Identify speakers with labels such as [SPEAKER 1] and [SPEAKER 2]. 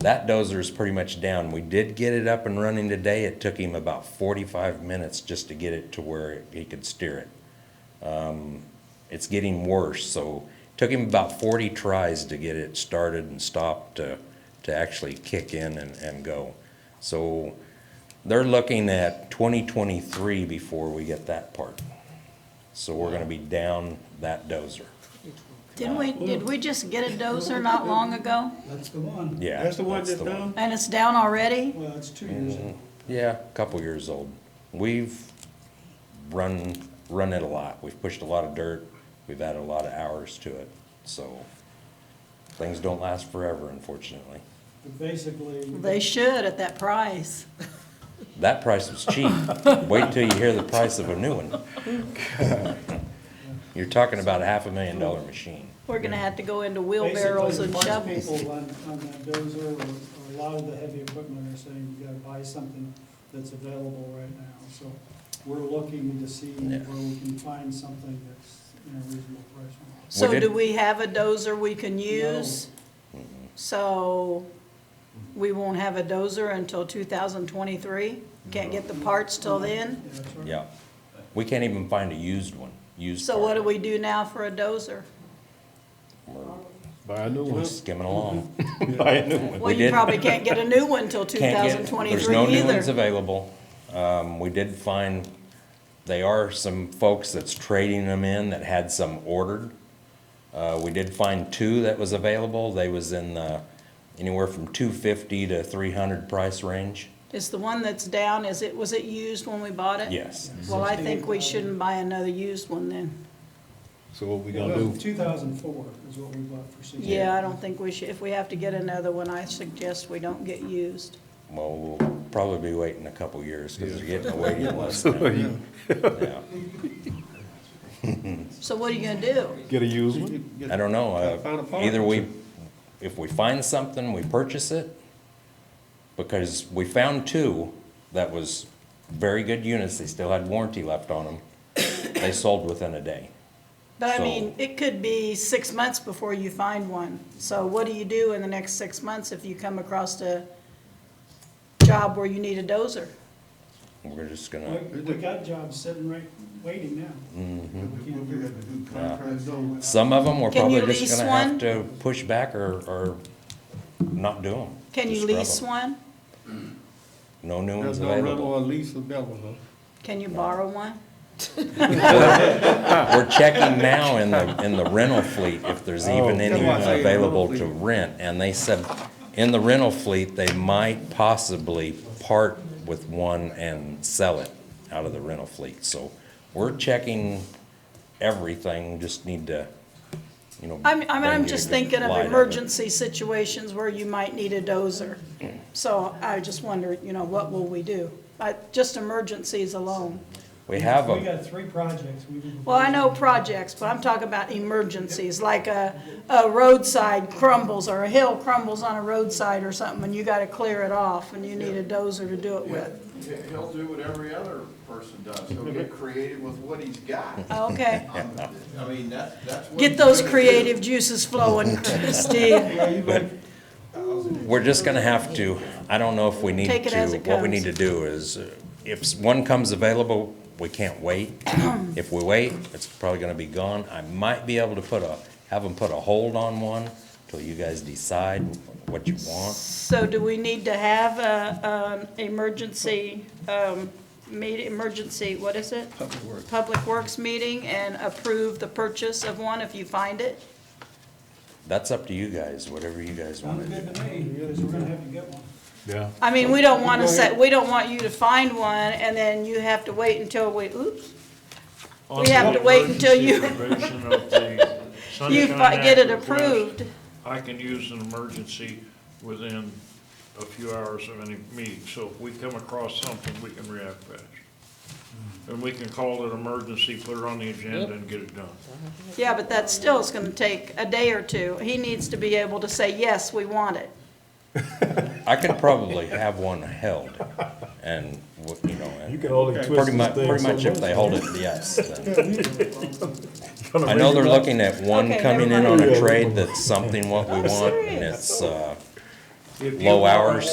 [SPEAKER 1] That dozer's pretty much down. We did get it up and running today. It took him about forty-five minutes just to get it to where he could steer it. Um, it's getting worse, so took him about forty tries to get it started and stopped to, to actually kick in and, and go. So they're looking at twenty twenty-three before we get that part. So we're gonna be down that dozer.
[SPEAKER 2] Didn't we, did we just get a dozer not long ago?
[SPEAKER 3] That's the one.
[SPEAKER 1] Yeah.
[SPEAKER 4] That's the one that's
[SPEAKER 1] the Mm-hmm.
[SPEAKER 4] down?
[SPEAKER 2] And it's down already?
[SPEAKER 3] Well, it's two years old.
[SPEAKER 1] Yeah, a couple years old. We've run, run it a lot. We've pushed a lot of dirt. We've added a lot of hours to it, so things don't last forever, unfortunately.
[SPEAKER 3] But Basically,
[SPEAKER 2] They should at that price.
[SPEAKER 1] That price was cheap. Wait till you hear the price of a new one. You're talking about a half a million dollar machine.
[SPEAKER 2] We're gonna have to go into wheelbarrows
[SPEAKER 3] basically,
[SPEAKER 2] and
[SPEAKER 3] most
[SPEAKER 2] shovels.
[SPEAKER 3] people on, on that dozer or or a lot of the heavy equipment are saying you gotta buy something that's available right now. So we're looking to see
[SPEAKER 1] Yeah.
[SPEAKER 3] where we can find something that's in a reasonable price. range.
[SPEAKER 2] So
[SPEAKER 1] did-
[SPEAKER 2] do we have a dozer we can use? So we won't have a dozer until two thousand twenty-three? Can't get the parts till then?
[SPEAKER 3] Yeah, that's right.
[SPEAKER 1] Yeah. We can't even find a used one, used.
[SPEAKER 2] So what
[SPEAKER 1] part.
[SPEAKER 2] do we do now for a dozer?
[SPEAKER 4] Buy a new
[SPEAKER 1] We're
[SPEAKER 4] one.
[SPEAKER 1] skimming along.
[SPEAKER 4] Buy a new one.
[SPEAKER 2] Well, you
[SPEAKER 1] didn't-
[SPEAKER 2] probably can't get a new one till two
[SPEAKER 1] Can't get-
[SPEAKER 2] thousand
[SPEAKER 1] There's
[SPEAKER 2] twenty-three
[SPEAKER 1] no new ones
[SPEAKER 2] either.
[SPEAKER 1] available. Um, we did find, they are some folks that's trading them in that had some ordered. Uh, we did find two that was available. They was in the, anywhere from two fifty to three hundred price range.
[SPEAKER 2] Is the one that's down, is it, was it used when we bought it?
[SPEAKER 1] Yes.
[SPEAKER 2] Well, I think we shouldn't buy another used one then.
[SPEAKER 4] So what we gonna
[SPEAKER 3] Well,
[SPEAKER 4] do?
[SPEAKER 3] two thousand four is what we bought for six.
[SPEAKER 2] Yeah, I don't think we should, if we have to get another one, I suggest we don't get used.
[SPEAKER 1] Well, we'll probably be waiting a couple years because they're getting a waiting list now. Yeah.
[SPEAKER 2] So what are you gonna do?
[SPEAKER 4] Get a used one?
[SPEAKER 1] I don't know,
[SPEAKER 4] Gotta find a
[SPEAKER 1] uh,
[SPEAKER 4] part.
[SPEAKER 1] either we, if we find something, we purchase it, because we found two that was very good units, they still had warranty left on them, they sold within a day.
[SPEAKER 2] But I
[SPEAKER 1] So-
[SPEAKER 2] mean, it could be six months before you find one. So what do you do in the next six months if you come across a job where you need a dozer?
[SPEAKER 1] We're just
[SPEAKER 3] We,
[SPEAKER 1] gonna,
[SPEAKER 3] we got jobs sitting right, waiting now.
[SPEAKER 1] Mm-hmm.
[SPEAKER 3] We can't do it.
[SPEAKER 1] some of them, we're
[SPEAKER 2] Can you
[SPEAKER 1] probably just
[SPEAKER 2] lease
[SPEAKER 1] gonna have
[SPEAKER 2] one?
[SPEAKER 1] to push back or, or not do them.
[SPEAKER 2] Can you lease one?
[SPEAKER 1] No new ones
[SPEAKER 5] There's no rental
[SPEAKER 1] available.
[SPEAKER 5] or lease available.
[SPEAKER 2] Can you borrow one?
[SPEAKER 1] We're checking now in the, in the rental fleet if there's
[SPEAKER 2] Oh.
[SPEAKER 1] even any
[SPEAKER 5] That's why I say
[SPEAKER 1] available to
[SPEAKER 5] rental fleet.
[SPEAKER 1] rent. And they said, in the rental fleet, they might possibly part with one and sell it out of the rental fleet. So we're checking everything, just need to, you know.
[SPEAKER 2] I'm, I mean,
[SPEAKER 1] bring
[SPEAKER 2] I'm
[SPEAKER 1] you
[SPEAKER 2] just
[SPEAKER 1] a good
[SPEAKER 2] thinking
[SPEAKER 1] light
[SPEAKER 2] of
[SPEAKER 1] it.
[SPEAKER 2] emergency situations where you might need a dozer. So I just wonder, you know, what will we do? I, just emergencies alone.
[SPEAKER 1] We have
[SPEAKER 3] We
[SPEAKER 1] a,
[SPEAKER 3] got three projects. we didn't-
[SPEAKER 2] Well, I know projects, but I'm talking about emergencies, like a, a roadside crumbles or a hill crumbles on a roadside or something, and you gotta clear it off, and you need a dozer to do it with.
[SPEAKER 6] He- He'll do what every other person does. He'll get creative with what he's got.
[SPEAKER 2] Okay.
[SPEAKER 6] I mean, that, that's what.
[SPEAKER 2] Get
[SPEAKER 6] he's
[SPEAKER 2] those
[SPEAKER 6] gonna
[SPEAKER 2] creative juices flowing, Steve.
[SPEAKER 3] Yeah, you might-
[SPEAKER 1] we're just gonna have to, I don't know if we need to.
[SPEAKER 2] Take it as it
[SPEAKER 1] What we need
[SPEAKER 2] comes.
[SPEAKER 1] to do is, uh, if one comes available, we can't wait. If we wait, it's probably gonna be gone. I might be able to put a, have them put a hold on one till you guys decide what you want.
[SPEAKER 2] So do we need to have a, an emergency, um, meet, emergency, what is it? Public Works. Public Works meeting and approve the purchase of one if you find it?
[SPEAKER 1] That's up to you guys, whatever you guys
[SPEAKER 3] Sounds
[SPEAKER 1] wanna do.
[SPEAKER 3] good to me, because we're gonna have to get one.
[SPEAKER 4] Yeah.
[SPEAKER 2] I mean, we don't want to say, we don't want you to find one and then you have to wait until we, oops,
[SPEAKER 7] On
[SPEAKER 2] We have
[SPEAKER 7] the
[SPEAKER 2] to wait until you-
[SPEAKER 7] emergency provision of the
[SPEAKER 2] you
[SPEAKER 7] Sunshine
[SPEAKER 2] fi- get it
[SPEAKER 7] Act request,
[SPEAKER 2] approved.
[SPEAKER 7] I can use an emergency within a few hours of any meeting, so if we come across something, we can react fast. And we can call it emergency, put it on the agenda and get it done.
[SPEAKER 2] Yeah, but that still is going to take a day or two. He needs to be able to say, yes, we want it.
[SPEAKER 1] I could probably have one held and, w- you know,
[SPEAKER 4] You
[SPEAKER 1] and
[SPEAKER 4] can only twist
[SPEAKER 1] pretty
[SPEAKER 4] this
[SPEAKER 1] much,
[SPEAKER 4] thing
[SPEAKER 1] pretty
[SPEAKER 4] so
[SPEAKER 1] much if they
[SPEAKER 4] much.
[SPEAKER 1] hold it, yes. then.
[SPEAKER 4] Gonna
[SPEAKER 1] I know
[SPEAKER 4] raise
[SPEAKER 1] they're
[SPEAKER 4] it up.
[SPEAKER 1] looking at one
[SPEAKER 2] Okay,
[SPEAKER 1] coming in
[SPEAKER 2] never
[SPEAKER 1] on
[SPEAKER 4] mind.
[SPEAKER 1] a trade that's something what we want, and
[SPEAKER 2] serious.
[SPEAKER 1] it's, uh,
[SPEAKER 7] If you
[SPEAKER 1] low
[SPEAKER 7] want-
[SPEAKER 1] hours.